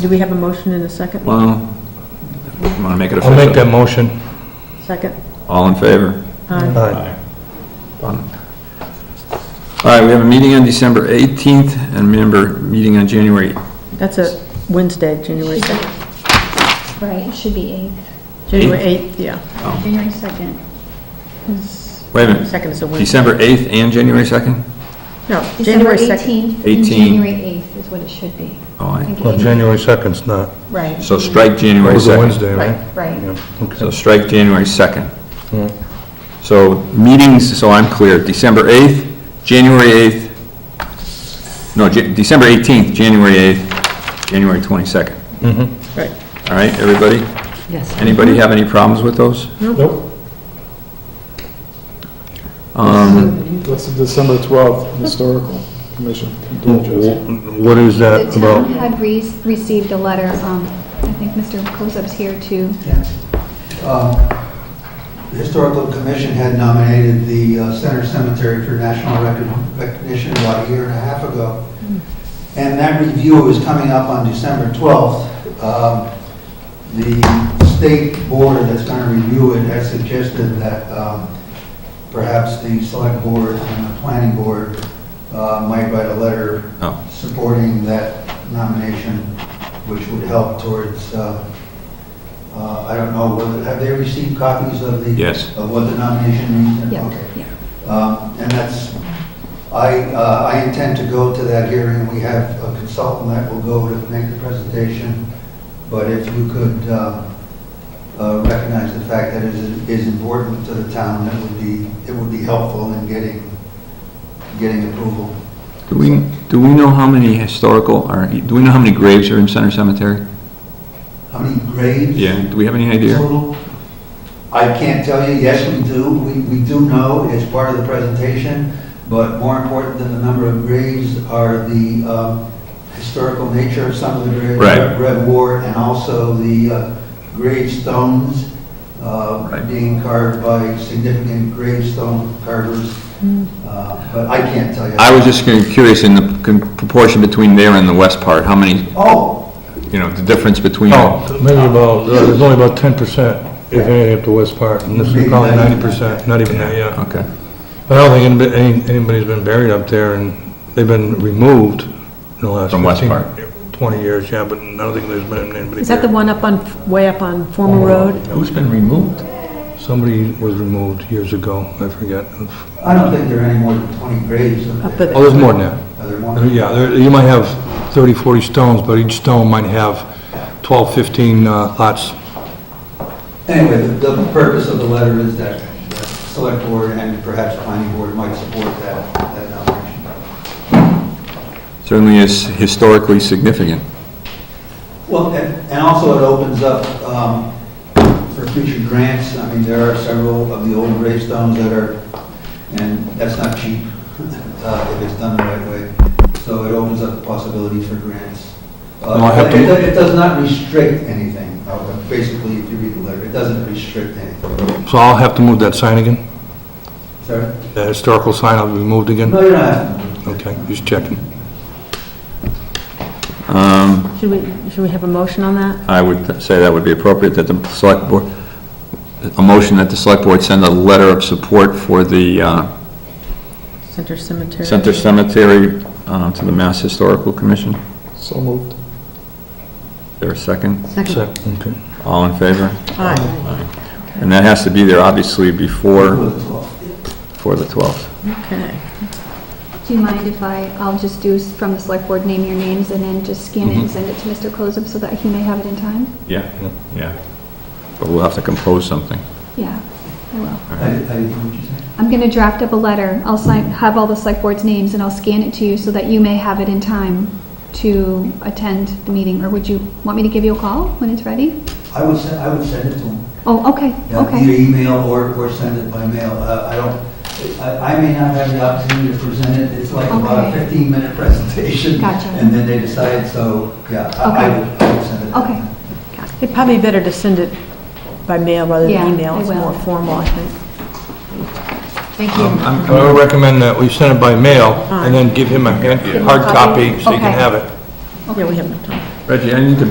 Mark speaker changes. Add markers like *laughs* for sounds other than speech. Speaker 1: Do we have a motion in a second?
Speaker 2: Well, want to make it
Speaker 3: I'll make that
Speaker 2: official?
Speaker 3: motion.
Speaker 1: Second? Um,
Speaker 2: All in favor?
Speaker 1: Aye.
Speaker 3: Aye.
Speaker 2: All right, we have a meeting on December 18th and member meeting on January,
Speaker 1: That's a Wednesday, January 2nd.
Speaker 4: Right, it should be
Speaker 1: January 8th, yeah.
Speaker 4: 8th. January 2nd is,
Speaker 2: oh, wait a minute,
Speaker 1: 2nd is a Wednesday.
Speaker 2: December 8th and January 2nd?
Speaker 1: No,
Speaker 4: December
Speaker 1: January 2nd.
Speaker 4: 18th. and
Speaker 2: 18th.
Speaker 4: January 8th is what it should be.
Speaker 2: Oh, aye.
Speaker 4: Thank you.
Speaker 3: Well, January 2nd's not,
Speaker 4: Right.
Speaker 2: So strike
Speaker 3: it
Speaker 2: January
Speaker 3: was a
Speaker 2: 2nd.
Speaker 3: Wednesday, right? Hmm.
Speaker 4: Right, right.
Speaker 3: Yeah, okay.
Speaker 2: So strike January 2nd.
Speaker 3: Yeah.
Speaker 2: So meetings, so I'm clear, December 8th, January 8th, no, Ja- December 18th, January 8th, January 22nd.
Speaker 3: Mm-hmm.
Speaker 1: Right.
Speaker 2: All right, everybody? Yes. Anybody have any problems with those?
Speaker 5: Nope.
Speaker 2: Um,
Speaker 5: What's the December 12th Historical Commission? Dual
Speaker 3: Mm-hmm.
Speaker 5: Joseph.
Speaker 3: Wh- What is that
Speaker 4: The town
Speaker 1: um,
Speaker 3: about?
Speaker 4: had re- received a letter, um, I think Mr. Kozub's here too.
Speaker 6: Yeah. Um, The Historical Commission had nominated the uh, Center Cemetery for national recon- recognition about a year and a half ago. And that review is coming up on December 12th. Um, The state board that's going to review it has suggested that um, perhaps the select board and the planning board uh, might write a letter
Speaker 2: Oh.
Speaker 6: supporting that nomination, which would help towards uh, uh, I don't know, whether, have they received copies of the?
Speaker 2: Yes.
Speaker 6: Of what the nomination means?
Speaker 4: Yeah,
Speaker 6: Okay.
Speaker 4: yeah.
Speaker 6: Um, And that's, I, uh, I intend to go to that hearing. We have a consultant that will go to make the presentation. But if you could uh, uh, recognize the fact that it is is important to the town, that would be, it would be helpful in getting, getting approval.
Speaker 2: Do we, do we know how many historical, or do we know how many graves are in Center Cemetery?
Speaker 6: How many graves?
Speaker 2: Do we have any idea?
Speaker 6: total? I can't tell you, yes, we do, we, we do know, it's part of the presentation, but more important than the number of graves are the um, historical nature of some of the graves.
Speaker 2: Right.
Speaker 6: Red War, and also the uh, gravestones uh,
Speaker 2: Right.
Speaker 6: being carved by significant gravestone carvers, Uh, but I can't tell you.
Speaker 2: I was just curious in the con- proportion between there and the west part, how many,
Speaker 6: Oh,
Speaker 2: you know, the difference between.
Speaker 3: Oh, maybe about, there's only about 10%, if anything, up to West Park, and this is probably 90%, not even that, yeah.
Speaker 2: Okay.
Speaker 3: I don't think anybody- any- anybody's been buried up there, and they've been removed in the last
Speaker 2: From West
Speaker 3: 15,
Speaker 2: Park.
Speaker 3: 20 years, yeah, but I don't think there's been anybody.
Speaker 1: Is that the one
Speaker 3: buried.
Speaker 1: up on, way up on Former Road?
Speaker 2: Who's been removed?
Speaker 3: Somebody was removed years ago, I forget.
Speaker 6: I don't think there are any more than 20 graves up
Speaker 1: Up
Speaker 6: there.
Speaker 1: at-
Speaker 3: Oh, there's more than that.
Speaker 6: Are there more?
Speaker 3: Yeah, there- you might have 30, 40 stones, but each stone might have 12, 15 uh, lots.
Speaker 6: Anyway, the, the purpose of the letter is that the select board and perhaps planning board might support that, that nomination.
Speaker 2: Certainly is historically significant.
Speaker 6: Well, and, and also it opens up, um, for future grants. I mean, there are several of the old gravestones that are, and that's not cheap, *laughs* uh, if it's done the right way. So it opens up the possibility for grants. Uh,
Speaker 3: No, I have to-
Speaker 6: It, it does not restrict anything, uh, basically, if you read the letter, it doesn't restrict anything.
Speaker 3: So I'll have to move that sign again?
Speaker 6: Sorry?
Speaker 3: The historical sign will be moved again?
Speaker 6: No, you don't have to.
Speaker 3: Okay, just checking.
Speaker 2: Um,
Speaker 1: Should we, should we have a motion on that?
Speaker 2: I would say that would be appropriate that the select board, a motion that the select board send a letter of support for the, uh,
Speaker 1: Center Cemetery?
Speaker 2: Center Cemetery, uh, to the Mass Historical Commission.
Speaker 5: So moved.
Speaker 2: There a second?
Speaker 3: Sec- Okay.
Speaker 2: All in favor?
Speaker 1: Aye.
Speaker 2: And that has to be there, obviously, before,
Speaker 6: Well, well,
Speaker 2: before the 12th.
Speaker 1: Okay.
Speaker 4: Do you mind if I, I'll just do s- from the select board, name your names and then just scan it
Speaker 3: Mm-hmm.
Speaker 4: and send it to Mr. Kozub so that he may have it in time?
Speaker 2: Yeah, yeah. But we'll have to compose something.
Speaker 4: Yeah, I will.
Speaker 6: I, I didn't hear what you said.
Speaker 4: I'm going to draft up a letter. I'll sign, have all the select board's names and I'll scan it to you so that you may have it in time to attend the meeting. Or would you want me to give you a call when it's ready?
Speaker 6: I would send, I would send it to him.
Speaker 4: Oh, okay,
Speaker 6: Yeah, Either
Speaker 4: okay.
Speaker 6: email or, or send it by mail. Uh, I don't, I, I may not have the opportunity to present it. It's like about a
Speaker 4: Okay.
Speaker 6: fifteen minute *laughs* presentation.
Speaker 4: Gotcha.
Speaker 6: And then they decide, so, yeah, I I
Speaker 4: Okay.
Speaker 6: would, I would send it.
Speaker 4: Okay.
Speaker 3: Um,
Speaker 1: It'd probably be better to send it by mail rather
Speaker 4: Yeah,
Speaker 1: than email.
Speaker 4: I
Speaker 1: It's
Speaker 4: will.
Speaker 1: more formal, I think. Thank
Speaker 3: Um, I'm- I would recommend that we send it by mail and then give him a hand- hard copy so he
Speaker 4: Okay.
Speaker 3: can have it.
Speaker 1: Yeah, we have enough time.
Speaker 2: Reggie, I need to